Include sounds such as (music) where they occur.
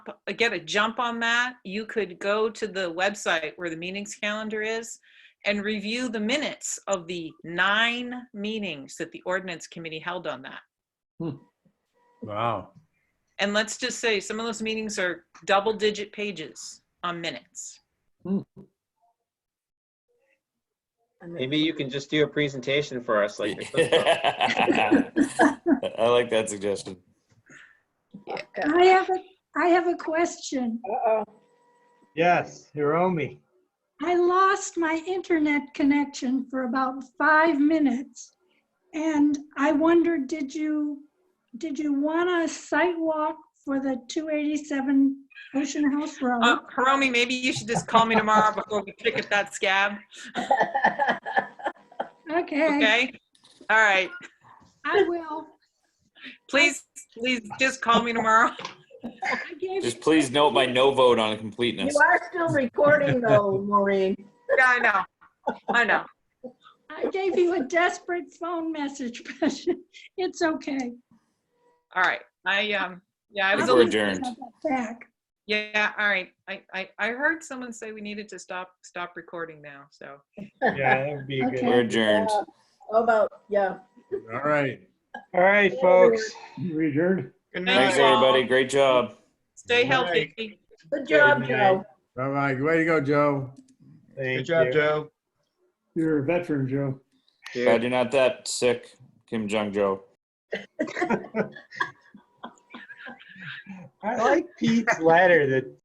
get a jump on that, you could go to the website where the meetings calendar is and review the minutes of the nine meetings that the ordinance committee held on that. Wow. And let's just say some of those meetings are double digit pages on minutes. Maybe you can just do a presentation for us, (laughs) like. I like that suggestion. I have a, I have a question. Yes, Hiromi. I lost my internet connection for about five minutes. And I wondered, did you, did you want a site walk for the 287 Ocean House Uh, Road? Hiromi, maybe you should just call me tomorrow before we pick up that scab, Okay, okay? All right, I will. please, please just call me tomorrow. (laughs) I gave Just please note my no vote on completeness. You are still recording though, Maureen. Yeah, I know, I know. I gave you a desperate phone message, (laughs) but it's okay. All right, I, um, yeah, I We're was a I'll little adjourned. have that Back. Yeah, all right. I, I, I heard someone say we needed to stop, stop recording now, so. Yeah, that would be good. We're adjourned. Uh, How about, yeah. All right. All right, folks. Richard. Good Thanks, everybody. Great job. Stay Good healthy. Good job, night. Joe. Bye-bye. Way to go, Joe. Good Thank job, you. Joe. You're a veteran, Joe. Glad you're not that sick, Kim Jong Jo. I like Pete's letter that